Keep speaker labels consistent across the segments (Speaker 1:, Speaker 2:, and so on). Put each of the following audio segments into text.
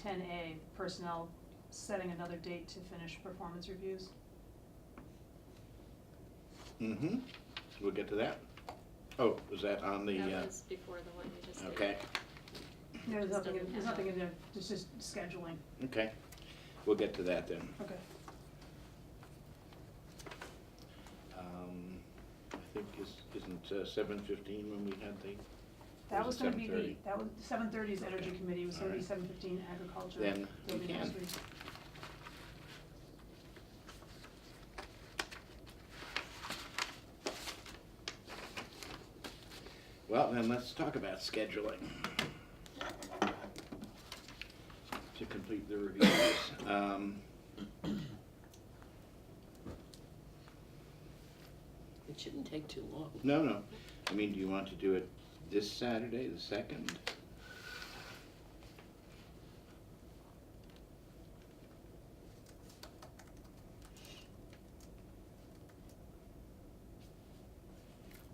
Speaker 1: ten A, personnel, setting another date to finish performance reviews.
Speaker 2: Mm-hmm, we'll get to that. Oh, was that on the, uh,
Speaker 3: That was before the one you just did.
Speaker 2: okay,
Speaker 1: There's
Speaker 3: Just
Speaker 1: nothing, in-
Speaker 3: doesn't
Speaker 1: there's
Speaker 3: have
Speaker 1: nothing
Speaker 3: a-
Speaker 1: in there, it's just scheduling,
Speaker 2: okay. We'll get to that then.
Speaker 1: okay.
Speaker 2: Um, I think is, isn't uh, seven fifteen when we had the,
Speaker 1: That
Speaker 2: Or
Speaker 1: was
Speaker 2: was it
Speaker 1: gonna be the,
Speaker 2: 7:30?
Speaker 1: that was, seven thirty's energy
Speaker 2: Okay.
Speaker 1: committee, was gonna be
Speaker 2: Alright.
Speaker 1: seven fifteen agriculture.
Speaker 2: Then
Speaker 1: That'll
Speaker 2: we
Speaker 1: be next
Speaker 2: can.
Speaker 1: week.
Speaker 2: well, then let's talk about scheduling. To complete the reviews. Um,
Speaker 4: It shouldn't take too long.
Speaker 2: no, no, I mean, do you want to do it this Saturday, the second?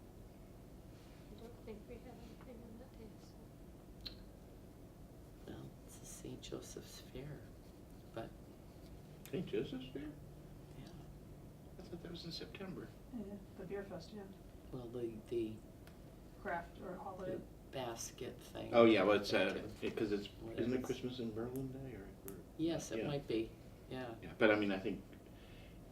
Speaker 3: I don't think we have anything on that day, so.
Speaker 4: Well, it's the St. Joseph's Fair, but,
Speaker 2: St. Joseph's Fair?
Speaker 4: yeah,
Speaker 2: I thought that was in September.
Speaker 1: Yeah, the beer fest, yeah,
Speaker 4: well, the, the
Speaker 1: craft or holiday,
Speaker 4: basket thing.
Speaker 2: Oh, yeah, well, it's,
Speaker 4: that
Speaker 2: uh,
Speaker 4: too.
Speaker 2: because it's, isn't
Speaker 4: Whatever.
Speaker 2: it Christmas in Berlin Day or? or-
Speaker 4: Yes, it
Speaker 2: yeah.
Speaker 4: might be, yeah.
Speaker 2: Yeah, but I mean, I think,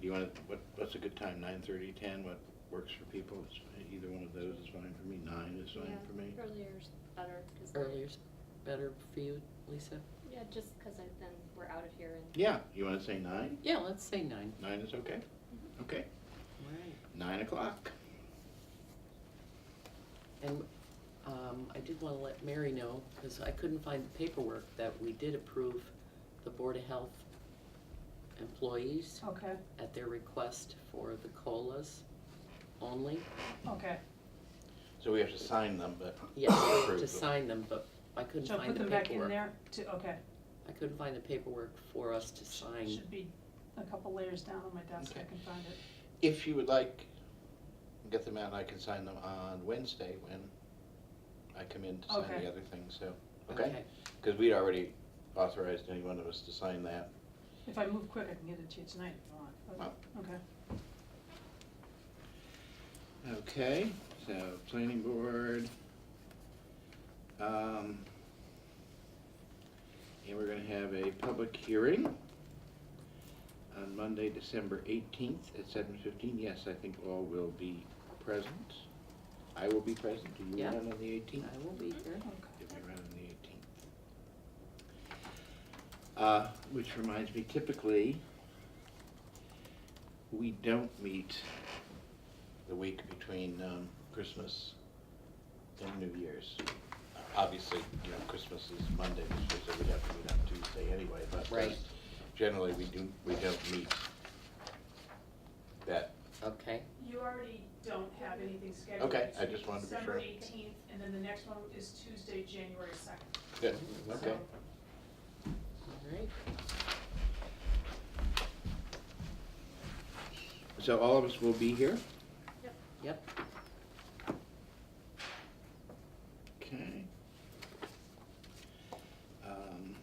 Speaker 2: do you wanna, what, what's a good time, nine thirty, ten, what works for people? It's, either one of those is fine for me, nine is fine
Speaker 3: Yeah,
Speaker 2: for me.
Speaker 3: Earlier's better, cause. I-
Speaker 4: Earlier's better for you, Lisa?
Speaker 3: Yeah, just cause I, then we're out of here and.
Speaker 2: Yeah, you wanna say nine?
Speaker 4: Yeah, let's say nine.
Speaker 2: Nine is okay? Okay,
Speaker 4: All right.
Speaker 2: nine o'clock.
Speaker 4: And um, I did want to let Mary know, because I couldn't find the paperwork, that we did approve the Board of Health employees
Speaker 1: okay,
Speaker 4: at their request for the COLAs only.
Speaker 1: okay,
Speaker 2: So we have to sign them, but.
Speaker 4: Yes,
Speaker 2: approve them.
Speaker 4: to sign them, but I couldn't
Speaker 1: so
Speaker 4: find
Speaker 1: put
Speaker 4: the
Speaker 1: them back in
Speaker 4: paperwork.
Speaker 1: there to, okay,
Speaker 4: I couldn't find the paperwork for us to sign.
Speaker 1: should be a couple layers down on my desk, I
Speaker 2: Okay.
Speaker 1: can find it.
Speaker 2: If you would like, get them out, I can sign them on Wednesday when I come in to sign
Speaker 1: Okay.
Speaker 2: the other thing, so, okay? Cause we'd already authorized any one of us to sign that.
Speaker 1: If I move quick, I can get it to you tonight if you want, but, okay.
Speaker 2: Okay, so planning board. Um, and we're gonna have a public hearing on Monday, December eighteenth at seven fifteen. Yes, I think all will be present. I will be present. Do you
Speaker 4: Yeah.
Speaker 2: run on the eighteenth?
Speaker 4: I will be here.
Speaker 2: If we run on the eighteenth. Uh, which reminds me, typically, we don't meet the week between, um, Christmas and New Year's. Obviously, you know, Christmas is Monday, this year, so we'd have to meet on Tuesday anyway, but uh,
Speaker 4: Right.
Speaker 2: generally, we do, we don't meet that,
Speaker 4: Okay,
Speaker 1: You already don't have anything scheduled.
Speaker 2: okay, I just wanted to be sure.
Speaker 1: eighteenth, and then the next one is Tuesday, January second.
Speaker 2: Good, okay.
Speaker 4: all right.
Speaker 2: So all of us will be here?
Speaker 4: Yep,
Speaker 2: Okay. Um,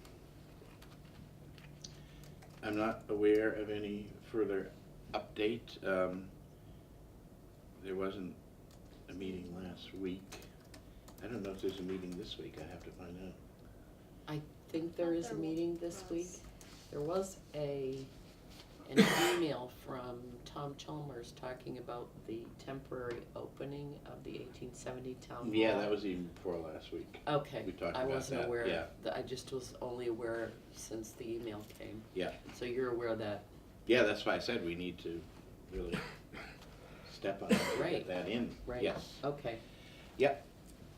Speaker 2: I'm not aware of any further update. Um, There wasn't a meeting last week. I don't know if there's a meeting this week, I have to find out.
Speaker 4: I think there is a
Speaker 3: There
Speaker 4: meeting this week.
Speaker 3: was-
Speaker 4: There was a, an email from Tom Chalmers talking about the temporary opening of the eighteen seventy town hall.
Speaker 2: Yeah, that was even before last week.
Speaker 4: Okay,
Speaker 2: we talked
Speaker 4: I
Speaker 2: about
Speaker 4: wasn't
Speaker 2: that,
Speaker 4: aware,
Speaker 2: yeah.
Speaker 4: th- I just was only aware since the email came.
Speaker 2: Yeah.
Speaker 4: So you're aware of that,
Speaker 2: Yeah, that's why I said we need to really step on it, and
Speaker 4: Right.
Speaker 2: get that in.
Speaker 4: right?
Speaker 2: Yes.
Speaker 4: Okay,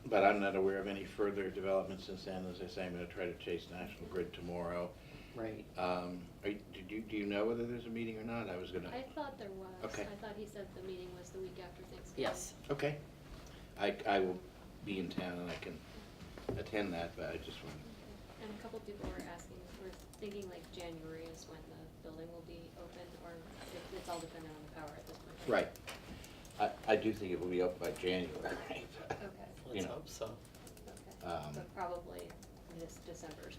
Speaker 2: But I'm not aware of any further developments since then. As I say, I'm gonna try to chase National Grid tomorrow.
Speaker 4: right,
Speaker 2: Um, are, you- did you, do you know whether there's a meeting or not? I was gonna,
Speaker 3: I thought there was.
Speaker 2: Okay.
Speaker 3: I thought he said the meeting was the week after Thanksgiving.
Speaker 4: yes.
Speaker 2: okay. I, I will be in town and I can attend that, but I just want,
Speaker 3: Okay. And a couple people were asking, we're thinking like January is when the building will be open, or it- it's all dependent on the power at this point.
Speaker 2: right. I, I do think it will be open by January. but,
Speaker 3: Okay,
Speaker 2: You
Speaker 4: Let's
Speaker 2: know.
Speaker 4: hope so.
Speaker 3: okay.
Speaker 2: Um,
Speaker 3: But probably this December